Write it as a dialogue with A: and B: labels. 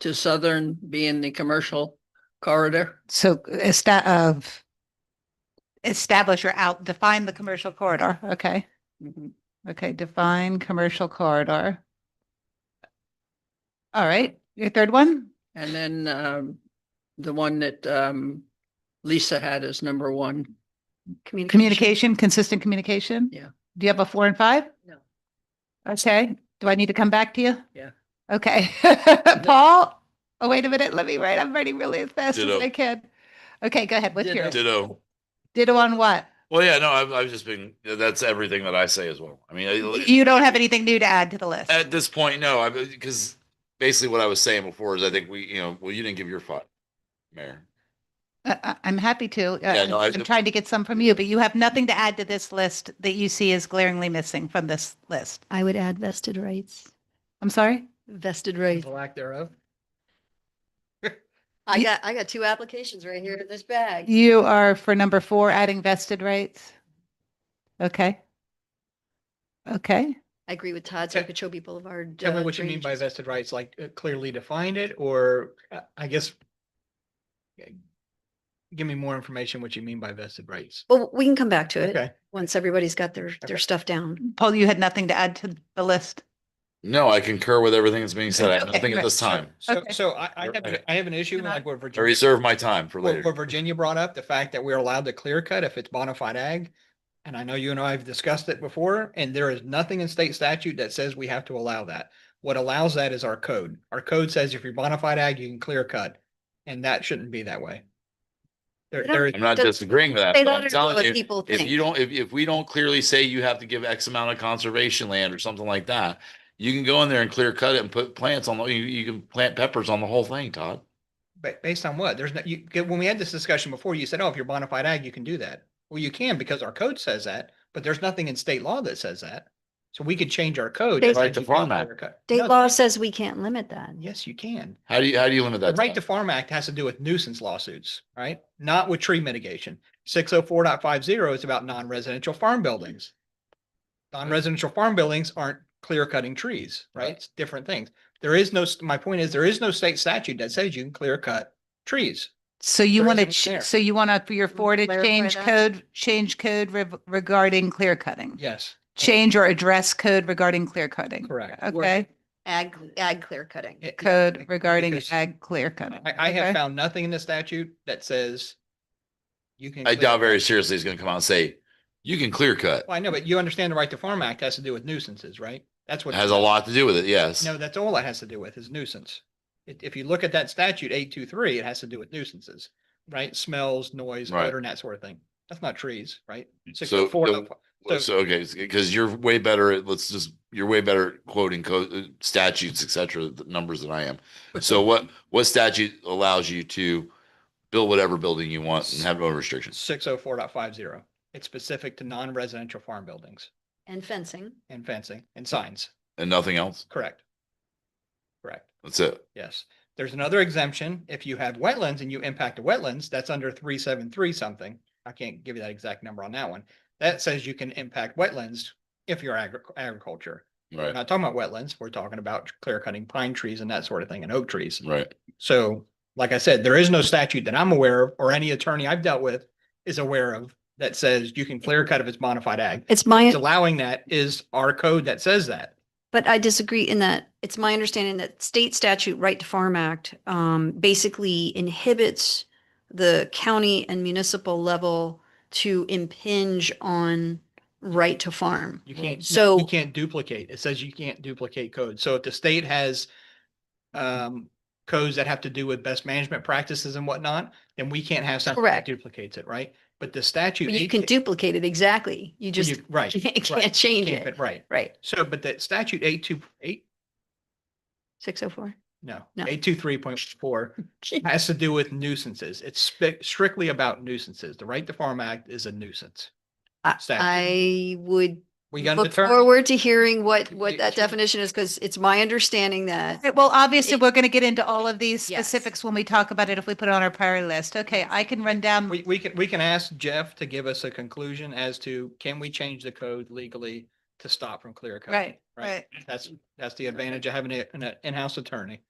A: to Southern being the commercial corridor?
B: So esta- of establish or out, define the commercial corridor. Okay.
A: Mhm.
B: Okay. Define commercial corridor. All right. Your third one?
A: And then um, the one that um, Lisa had as number one.
B: Communication, consistent communication?
A: Yeah.
B: Do you have a four and five?
A: No.
B: Okay, do I need to come back to you?
A: Yeah.
B: Okay, Paul, oh, wait a minute, let me write, I'm writing really as fast as
C: Ditto.
B: I can. Okay, go ahead, what's
A: Ditto.
B: yours?
C: Ditto.
B: Ditto on what?
C: Well, yeah, no, I've, I've just been, that's everything that I say as well. I mean, I-
B: You don't have anything new to add to the list?
C: at this point, no, I, because basically what I was saying before is I think we, you know, well, you didn't give your thought, Mayor.
B: Uh, uh, I'm happy to, uh,
C: Yeah, no, I-
B: I'm trying to get some from you, but you have nothing to add to this list that you see is glaringly missing from this list.
D: I would add vested rights,
B: I'm sorry?
D: vested rights.
E: lack thereof.
D: I got, I got two applications right here in this bag.
B: You are for number four, adding vested rights? Okay. Okay.
D: I agree with Todd's
E: Tell-
D: Okeechobee Boulevard.
E: Tell me
D: uh,
E: what you mean by
D: drainage.
E: vested rights, like uh, clearly defined it, or uh, I guess uh, give me more information what you mean by vested rights.
D: Well, we can come back to it
E: Okay,
D: once everybody's got their, their stuff down.
B: Paul, you had nothing to add to the list?
C: No, I concur with everything that's being said. I have
B: Okay,
C: nothing at
B: right,
C: this
B: sure.
C: time.
E: so,
B: Okay.
E: so I, I
C: You're
E: have,
C: right.
E: I have an issue
B: Can I-
E: like what
C: I
E: Virginia,
C: reserve my time for
E: what
C: later.
E: what Virginia brought up, the fact that we're allowed to clear cut if it's bona fide ag. And I know you and I have discussed it before, and there is nothing in state statute that says we have to allow that. What allows that is our code. Our code says if you're bona fide ag, you can clear cut, and that shouldn't be that way. There,
D: I don't
E: there is.
C: I'm not
D: Does-
C: disagreeing with that.
D: Say
C: but I'm
D: that or
C: telling
D: what
C: you,
D: people
C: If you
D: think.
C: don't, if, if we don't clearly say you have to give X amount of conservation land or something like that, you can go in there and clear cut it and put plants on, the- you, you can plant peppers on the whole thing, Todd.
E: Ba- based on what? There's no, you, 'cause when we had this discussion before, you said, oh, if you're bona fide ag, you can do that. Well, you can because our code says that, but there's nothing in state law that says that. So we could change our code. that
C: Right
D: State-
E: says
C: to
E: you can't
C: farm act.
E: clear cut.
D: State
E: No,
D: law says we can't limit that.
E: Yes, you can.
C: How do you, how do you limit
E: The
C: that?
E: Right to
C: Todd?
E: Farm Act has to do with nuisance lawsuits, right? Not with tree mitigation. Six oh four is about non-residential farm buildings. Non-residential farm buildings aren't clear cutting trees, right? It's different things. There is no, s- my point is, there is no state statute that says you can clear cut trees.
B: So you
E: There
B: want
E: isn't
B: to,
E: there.
B: so you want to, for your
D: we
B: four to
D: clarify
B: change
D: that?
B: code, change code rev- regarding clear cutting?
E: Yes.
B: Change or address code regarding clear cutting?
E: Correct.
B: Okay,
D: Ag, ag clear cutting.
E: It-
B: code regarding
E: because
B: ag clear cutting.
E: I, I
B: Okay.
E: have found nothing in the statute that says you can.
C: I
E: clear-
C: doubt very seriously he's gonna come out and say, you can clear cut.
E: Well, I know, but you understand the Right to Farm Act has to do with nuisances, right? That's
C: It
E: what.
C: has a lot to do with it, yes.
E: No, that's all it has to do with is nuisance. If, if you look at that statute eight, two, three, it has to do with nuisances, right? Smells, noise,
C: Right.
E: odor and that sort of thing. That's not trees, right?
C: So
E: 604.
C: the- Well, So, okay, because you're way better at, let's just, you're way better at quoting code statutes, et cetera, the numbers than I am. So what, what statute allows you to build whatever building you want and have no restrictions?
E: Six oh four dot five zero. It's specific to non-residential farm buildings
D: And fencing.
E: and fencing and signs,
C: And nothing else?
E: correct? Correct.
C: That's it.
E: Yes, there's another exemption. If you have wetlands and you impact the wetlands, that's under three seven three something. I can't give you that exact number on that one. That says you can impact wetlands if you're agri- agriculture. We're
C: Right,
E: not talking about wetlands. We're talking about clear cutting pine trees and that sort of thing and oak trees.
C: right.
E: So like I said, there is no statute that I'm aware of or any attorney I've dealt with is aware of that says you can clear cut if it's modified ag.
D: It's my,
E: Allowing that is our code that says that.
D: But I disagree in that it's my understanding that state statute Right to Farm Act um, basically inhibits the county and municipal level to impinge on right to farm.
E: You can't, so
D: So-
E: you can't duplicate. It says you can't duplicate code. So if the state has um, codes that have to do with best management practices and whatnot, then we can't have something that
D: Correct.
E: duplicates it, right? But the statute.
D: You can
E: 18
D: duplicate it exactly. You
E: well,
D: just
E: you- Right.
D: can't,
E: right,
D: can't change it.
E: can't, but Right.
D: Right.
E: So, but that statute eight two eight,
D: 604.
E: no,
D: No.
E: eight two three point four has to do with nuisances. It's spe- strictly about nuisances. The Right to Farm Act is a nuisance.
D: I-
E: Statute.
D: I would
E: We got to
D: look
E: determine.
D: forward to hearing what, what
E: It
D: that
E: should-
D: definition is because it's my understanding that
B: Okay, Well, obviously,
D: It-
B: we're going to get into all of these
D: Yes.
B: specifics when we talk about it, if we put it on our priority list. Okay, I can run down
E: We, we can, we can ask Jeff to give us a conclusion as to can we change the code legally to stop from clear cutting?
B: Right, right.
E: That's, that's the advantage of having a- an in-house attorney.